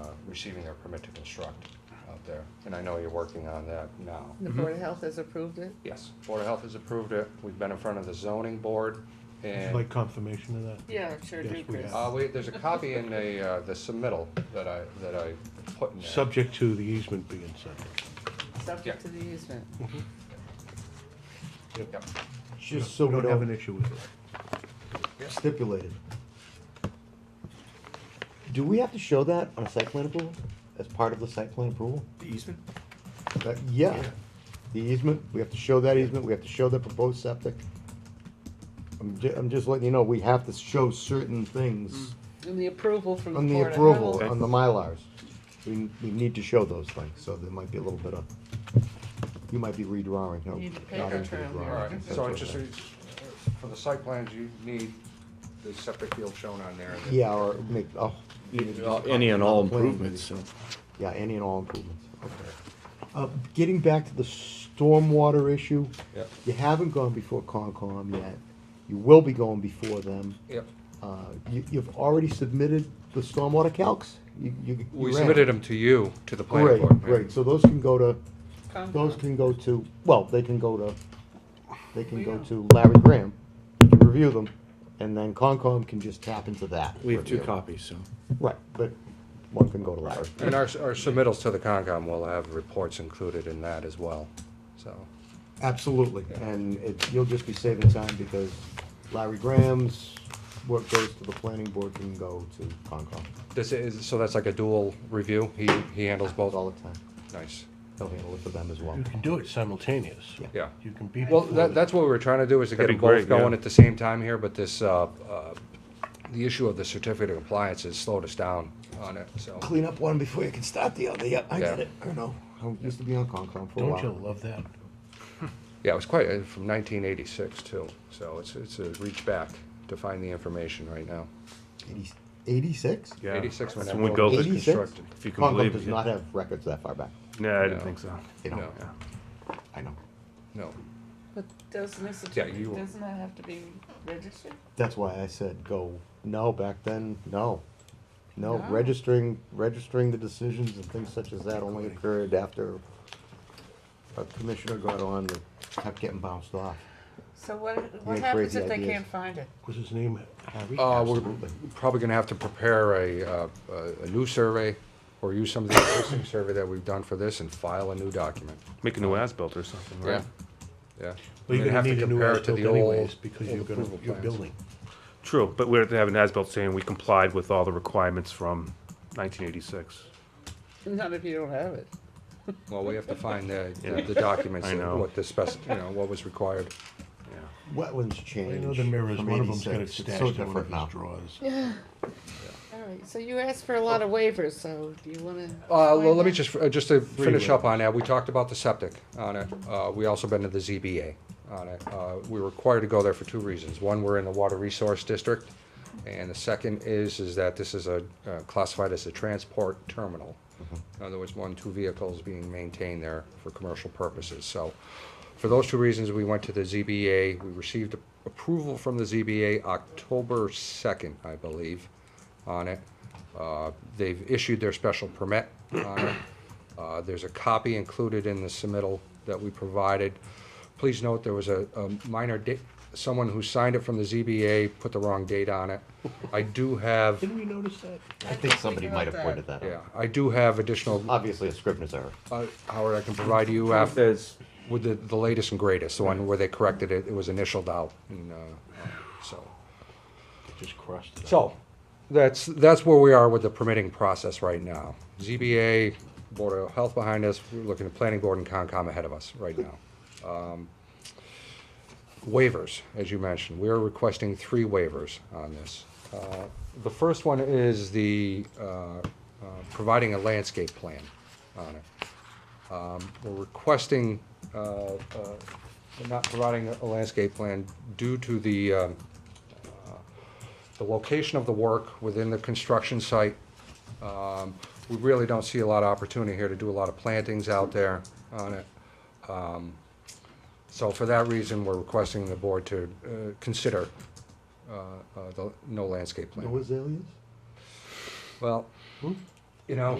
uh, receiving their permit to construct out there. And I know you're working on that now. The Board of Health has approved it? Yes, Board of Health has approved it. We've been in front of the zoning board Would you and, like confirmation of that? Yeah, I'm sure do, Yes, we Chris. have. uh, wait, there's a copy in the, uh, the submittal that I, that I put in there. Subject to the easement being signed. Yeah. Subject to the easement. Yep. Just so we Don't have an don't issue with it. stipulate it. Do we have to show that on a site plan approval, as part of the site plan approval? The easement? Uh, Yeah, the easement, we have to show that easement, we have to show the proposed septic. I'm ju- I'm just letting you know, we have to show certain things And the approval from the on the Board of approval, Health. on the Mylars. We, we need to show those things, so there might be a little bit of, you might be redrawing, no. Need a paper not into the trail here. drawing. All right, That's so what it just, that- for the site plans, you need the septic field shown on there. Yeah, or make, oh. even just a Uh, Any and all improvements, so. Yeah, any and all improvements, okay. Uh, getting back to the stormwater issue. Yep. You haven't gone before Concom yet, you will be going before them. Yep. Uh, you, you've already submitted the stormwater calcs? You, you. you We ran. submitted them to you, to the planning Great, board. great, so those can go to, Concom. those can go to, well, they can go to, they can We go know. to Larry Graham, he can review them, and then Concom can just tap into that. We have two review. copies, so. Right, but one can go to Larry. And our, our submittals to the Concom will have reports included in that as well, so. Absolutely, and it, you'll just be saving time because Larry Graham's, what goes to the planning board can go to Concom. This is, so that's like a dual review? He, he handles Both both? all the time, Nice. he'll handle it for them as well. You can do it simultaneous. Yeah. You can be. Well, before that, the- that's what we were trying to do, is to get them That'd be both great, yeah. going at the same time here, but this, uh, uh, the issue of the certificate of compliance has slowed us down on it, so. Clean up one before you can start the other, yeah, I get get it. it, I know. I used to be on Concom for a Don't you while. love that? Yeah, it was quite, uh, from nineteen eighty-six too, so it's, it's a reach back to find the information right now. Eighty- Eighty-six? Yeah. Eighty-six when That's that when we road built was it. constructed. Eighty-six? If you can Concom believe does it. not have records that far back, No, I No. didn't think so. they don't, No, I know. no. Uh, But doesn't this, Yeah, you- doesn't that have to be registered? That's why I said go, no, back then, no. No, No. registering, registering the decisions and things such as that only occurred after a commissioner got on and kept getting bounced off. So what, what had happens crazy if they ideas. can't find it? Was his name Harry? Uh, we're Absolutely. probably gonna have to prepare a, uh, a- a new survey, or use some of the existing survey that we've done for this and file a new document. Make a new as-built or something, Yeah, yeah. Well, And you're then gonna have to need a new compare it to as-built the old- anyways because old you're gonna, approval you're plans. building. True, but we have to have an as-built saying we complied with all the requirements from 1986. Not if you don't have it. Well, we have to find the, the- the documents, I and know. what the spec, you know, what was required. Wetlands I change. know the mirrors, from one of them's got it 86. It's stashed so in one of different his now. drawers. All right, so you asked for a lot of waivers, so do you wanna? Uh, explain well, let me that? just, uh, just to finish up on that, we talked about the septic on it, uh, we also been to the ZBA on it. Uh, we were required to go there for two reasons, one, we're in the water resource district, and the second is, is that this is a, uh, classified as a transport terminal. In other words, one, two vehicles being maintained there for commercial purposes, so. For those two reasons, we went to the ZBA, we received approval from the ZBA October second, I believe, on it. Uh, They've issued their special permit on it. Uh, There's a copy included in the submittal that we provided. Please note, there was a a minor, di- someone who signed it from the ZBA put the wrong date on it. I do have, Didn't we notice that? I think somebody got might have that. pointed that yeah, out. I do have additional, Obviously a Scrivener's error. uh, Howard, I can provide you after. There's, With the, the latest and greatest, the one where they corrected it, it was initialed out, and, uh, uh, so. Just crossed it out. So, that's, that's where we are with the permitting process right now. ZBA, Board of Health behind us, we're looking at Planning Board and Concom ahead of us right now. Um, Waivers, as you mentioned, we are requesting three waivers on this. Uh, The first one is the, uh, uh, providing a landscape plan on it. Um, We're requesting, uh, uh, not providing a landscape plan due to the, um, the location of the work within the construction site. Um, We really don't see a lot of opportunity here to do a lot of plantings out there on it. Um, So for that reason, we're requesting the board to uh, consider uh, uh, the no landscape No plan. azaleas? Well, you know,